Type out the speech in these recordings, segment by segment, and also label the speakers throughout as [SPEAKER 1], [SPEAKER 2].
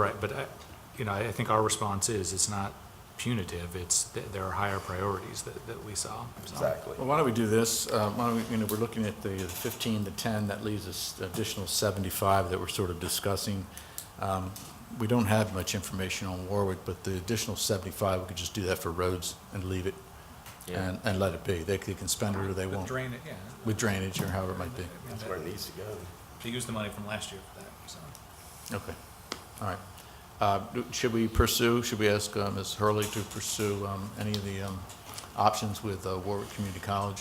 [SPEAKER 1] Right, but, I- you know, I I think our response is, it's not punitive, it's, th- there are higher priorities that, that we saw. so.
[SPEAKER 2] Exactly.
[SPEAKER 3] Well, why don't we do this? Uh, Why don't we, you know, we're looking at the 15 to 10, that leaves us additional 75 that we're sort of discussing. Um, We don't have much information on Warwick, but the additional 75, we could just do that for roads and leave it
[SPEAKER 4] Yeah.
[SPEAKER 3] and, and let it be. They they can spend it or they
[SPEAKER 1] The
[SPEAKER 3] won't,
[SPEAKER 1] Drain, it, yeah.
[SPEAKER 3] with drainage or however it might be.
[SPEAKER 1] I mean,
[SPEAKER 2] That's
[SPEAKER 1] that-
[SPEAKER 2] where it needs to go.
[SPEAKER 1] They used the money from last year for that, so.
[SPEAKER 3] Okay, all right. Uh, do- Should we pursue, should we ask uh, Ms. Hurley to pursue um, any of the um, options with uh, Warwick Community College?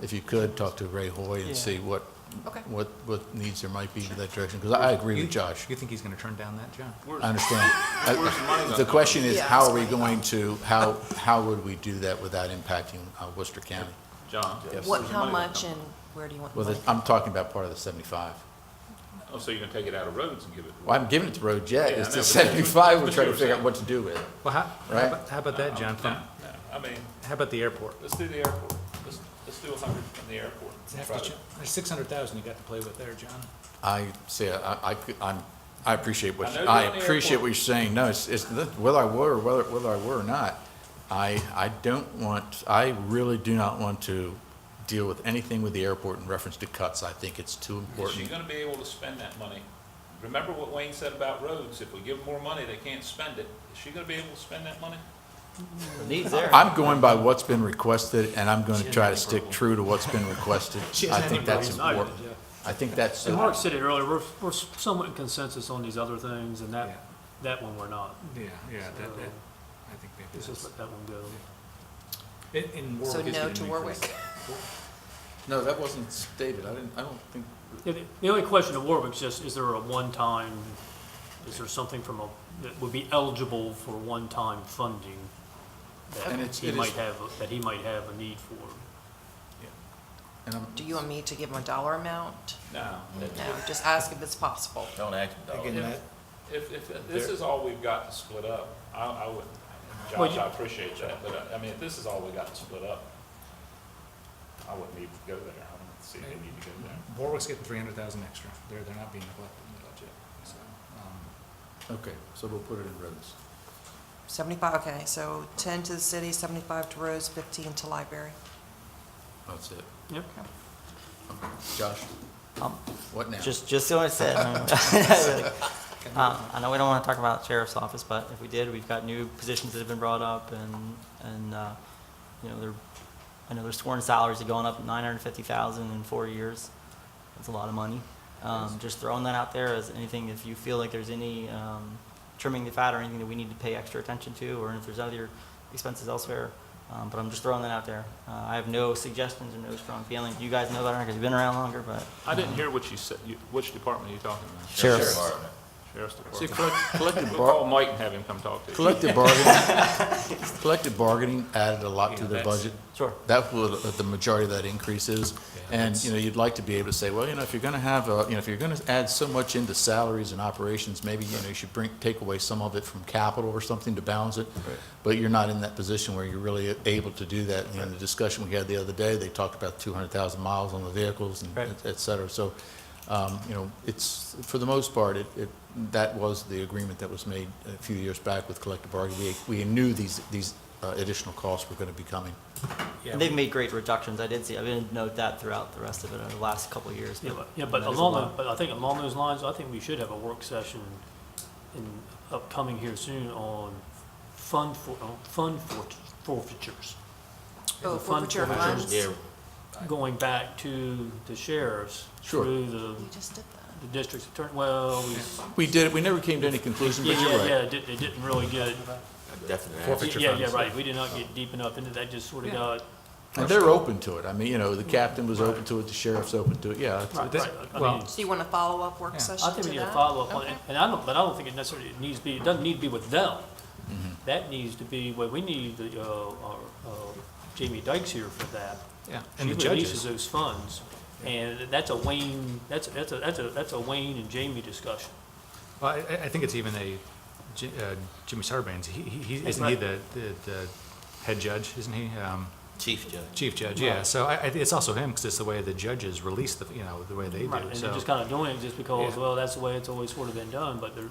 [SPEAKER 3] If you could, talk to Ray Hoy
[SPEAKER 4] Yeah.
[SPEAKER 3] and see what,
[SPEAKER 1] Okay.
[SPEAKER 3] what, what needs there might be in that direction, because I agree
[SPEAKER 1] You-
[SPEAKER 3] with Josh.
[SPEAKER 1] You think he's gonna turn down that job?
[SPEAKER 3] I understand. I-
[SPEAKER 5] Where's the money
[SPEAKER 3] The
[SPEAKER 5] gonna
[SPEAKER 3] question is,
[SPEAKER 6] Yeah,
[SPEAKER 3] how are
[SPEAKER 6] that's
[SPEAKER 3] we
[SPEAKER 6] my
[SPEAKER 3] going to, how, how would we do that without impacting uh, Worcester County?
[SPEAKER 5] John?
[SPEAKER 3] Yes.
[SPEAKER 6] What, how much and where do you want the
[SPEAKER 3] Well,
[SPEAKER 6] money?
[SPEAKER 3] the- I'm talking about part of the 75.
[SPEAKER 5] Oh, so you're gonna take it out of roads and give it?
[SPEAKER 3] Well, I'm giving it to road yet,
[SPEAKER 5] Yeah, I
[SPEAKER 3] it's
[SPEAKER 5] know,
[SPEAKER 3] the
[SPEAKER 5] but-
[SPEAKER 3] 75, we're
[SPEAKER 5] but
[SPEAKER 3] trying to figure
[SPEAKER 5] you're
[SPEAKER 3] out
[SPEAKER 5] saying-
[SPEAKER 3] what to do with it.
[SPEAKER 1] Well, how,
[SPEAKER 3] Right.
[SPEAKER 1] how about, how about that, John?
[SPEAKER 5] No, no. I mean,
[SPEAKER 1] How about the airport?
[SPEAKER 5] let's do the airport. Let's, let's do a hundred from the airport. Try to-
[SPEAKER 1] There's six hundred thousand you got to play with there, John.
[SPEAKER 3] I see, I, I could- I'm, I appreciate what,
[SPEAKER 5] I
[SPEAKER 3] you-
[SPEAKER 5] know
[SPEAKER 3] I
[SPEAKER 5] you're on the
[SPEAKER 3] appreciate
[SPEAKER 5] airport.
[SPEAKER 3] what you're saying. No, it's, it's, the- whether I were, or whether, whether I were or not, I, I don't want, I really do not want to deal with anything with the airport in reference to cuts. I think it's too
[SPEAKER 5] Is she
[SPEAKER 3] important.
[SPEAKER 5] gonna be able to spend that money? Remember what Wayne said about roads, if we give them more money, they can't spend it. Is she gonna be able to spend that money?
[SPEAKER 4] Needs there.
[SPEAKER 3] I'm going by what's been requested, and I'm gonna try to stick true to what's been requested. I think that's important. I think that's,
[SPEAKER 7] And Mark said it earlier, we're, we're somewhat in consensus on these other things, and
[SPEAKER 1] Yeah.
[SPEAKER 7] that, that one we're not.
[SPEAKER 1] Yeah, yeah,
[SPEAKER 7] So,
[SPEAKER 1] that, that, I think maybe
[SPEAKER 7] Let's just let that one go.
[SPEAKER 1] that's. In- in
[SPEAKER 6] So
[SPEAKER 1] Warwick is
[SPEAKER 6] no
[SPEAKER 1] getting
[SPEAKER 6] to
[SPEAKER 1] an
[SPEAKER 6] Warwick.
[SPEAKER 1] increase.
[SPEAKER 3] no, that wasn't stated. I didn't, I don't think,
[SPEAKER 7] Yeah, The the only question of Warwick's just, is there a one-time, is there something from a, that would be eligible for one-time funding?
[SPEAKER 3] And
[SPEAKER 7] That
[SPEAKER 3] it's-
[SPEAKER 7] he
[SPEAKER 3] it is-
[SPEAKER 7] might have, that he might have a need for?
[SPEAKER 3] and I'm,
[SPEAKER 6] Do you want me to give them a dollar amount?
[SPEAKER 5] No.
[SPEAKER 6] No, just ask if it's possible.
[SPEAKER 4] Don't act dog.
[SPEAKER 1] Again, that,
[SPEAKER 5] If, if this is all we've got to split up, I, I wouldn't,
[SPEAKER 7] Well,
[SPEAKER 5] Josh,
[SPEAKER 7] you-
[SPEAKER 5] I appreciate that, but uh, I, I mean, if this is all we got to split up, I wouldn't even go there. I don't see any need to go there.
[SPEAKER 1] Warwick's getting three hundred thousand extra. They're, they're not being neglected in the budget, so. um,
[SPEAKER 3] okay, so we'll put it in roads.
[SPEAKER 6] Seventy-five, okay, so ten to the city, seventy-five to Rose, fifteen to library.
[SPEAKER 3] That's it.
[SPEAKER 7] Yep.
[SPEAKER 3] Josh,
[SPEAKER 4] Um,
[SPEAKER 3] what now?
[SPEAKER 4] Just, just see what I said. Um, I know we don't want to talk about sheriff's office, but if we did, we've got new positions that have been brought up and, and, uh, you know, they're, I know their sworn salaries are going up nine hundred and fifty thousand in four years. That's a lot of money. Um, just throwing that out there as anything, if you feel like there's any, um, trimming the fat or anything that we need to pay extra attention to, or if there's other expenses elsewhere. Um, but I'm just throwing that out there. Uh, I have no suggestions or no strong feelings. You guys know that, because you've been around longer, but.
[SPEAKER 5] I didn't hear what you said, you- which department are you talking about?
[SPEAKER 4] Sheriff's.
[SPEAKER 5] Sheriff's
[SPEAKER 3] See,
[SPEAKER 5] Department.
[SPEAKER 3] collect- collective
[SPEAKER 5] We'll
[SPEAKER 3] bar-
[SPEAKER 5] call Mike and have him come talk to you.
[SPEAKER 3] Collective bargaining, collective bargaining added a lot to
[SPEAKER 5] Yeah,
[SPEAKER 3] the
[SPEAKER 5] that's-
[SPEAKER 3] budget.
[SPEAKER 4] Sure.
[SPEAKER 3] That's what the majority of that increase is. And, you know, you'd like to be able to say, well, you know, if you're going to have, a- you know, if you're going to add so much into salaries and operations, maybe, you know, you should bring, take away some of it from capital or something to balance it. But you're not in that position where you're really able to do that. You know, the discussion we had the other day, they talked about 200,000 miles on the vehicles and
[SPEAKER 4] Right.
[SPEAKER 3] et- et cetera. So, um, you know, it's, for the most part, it, it, that was the agreement that was made a few years back with collective bargaining. We, we knew these, these uh, additional costs were going to be coming.
[SPEAKER 1] yeah,
[SPEAKER 4] And they've made great reductions. I did see, I didn't note that throughout the rest of it, over the last couple of years.
[SPEAKER 7] Yeah, but- Yeah, but
[SPEAKER 4] that is a
[SPEAKER 7] along,
[SPEAKER 4] lot.
[SPEAKER 7] the- but I think along those lines, I think we should have a work session in, upcoming here soon on fund for, on fund forfeit- forfeitures.
[SPEAKER 6] Oh,
[SPEAKER 7] The fund
[SPEAKER 6] forfeiture
[SPEAKER 7] forfeitures.
[SPEAKER 6] funds? You
[SPEAKER 7] going back to the sheriffs
[SPEAKER 3] Sure.
[SPEAKER 7] through the,
[SPEAKER 6] just did that.
[SPEAKER 7] the district's attorney, well, we,
[SPEAKER 3] We did, we never came to any conclusion,
[SPEAKER 7] yeah,
[SPEAKER 3] but you're
[SPEAKER 7] yeah, yeah,
[SPEAKER 3] right.
[SPEAKER 7] it didn't, it didn't really get,
[SPEAKER 3] Forfeiture
[SPEAKER 7] yeah, yeah,
[SPEAKER 3] funds.
[SPEAKER 7] right, we did not get deep enough into that, just sort of got,
[SPEAKER 3] And they're open to it. I mean, you know, the captain was open to it, the sheriff's open to it, yeah. it's-
[SPEAKER 7] right,
[SPEAKER 1] this-
[SPEAKER 7] right, I
[SPEAKER 1] well-
[SPEAKER 7] mean,
[SPEAKER 6] So you want a follow-up work
[SPEAKER 1] Yeah.
[SPEAKER 6] session
[SPEAKER 7] I
[SPEAKER 6] to
[SPEAKER 7] think we need a
[SPEAKER 6] that?
[SPEAKER 7] follow-up on it,
[SPEAKER 6] Okay.
[SPEAKER 7] and I don't, but I don't think it necessarily needs to be, it doesn't need to be with them. That needs to be, well, we need the, uh, our, uh, Jamie Dykes here for that.
[SPEAKER 1] yeah.
[SPEAKER 7] She
[SPEAKER 1] And the judges,
[SPEAKER 7] releases those funds, and that's a Wayne, that's, that's a, that's a, that's a Wayne and Jamie discussion.
[SPEAKER 1] well, I, I- I think it's even a, Ji- uh, Jimmy Sarbanes, he, he, he-
[SPEAKER 7] That's
[SPEAKER 1] isn't he
[SPEAKER 7] right.
[SPEAKER 1] the, the, the head judge, isn't he? Um,
[SPEAKER 2] Chief Judge.
[SPEAKER 1] Chief Judge, yeah, so I, I, it's also him, because it's the way the judges release the, you know, the way they do, so.
[SPEAKER 7] Right, and they're just kind of doing it just because,
[SPEAKER 1] Yeah.
[SPEAKER 7] well, that's the way it's always sort of been done, but there,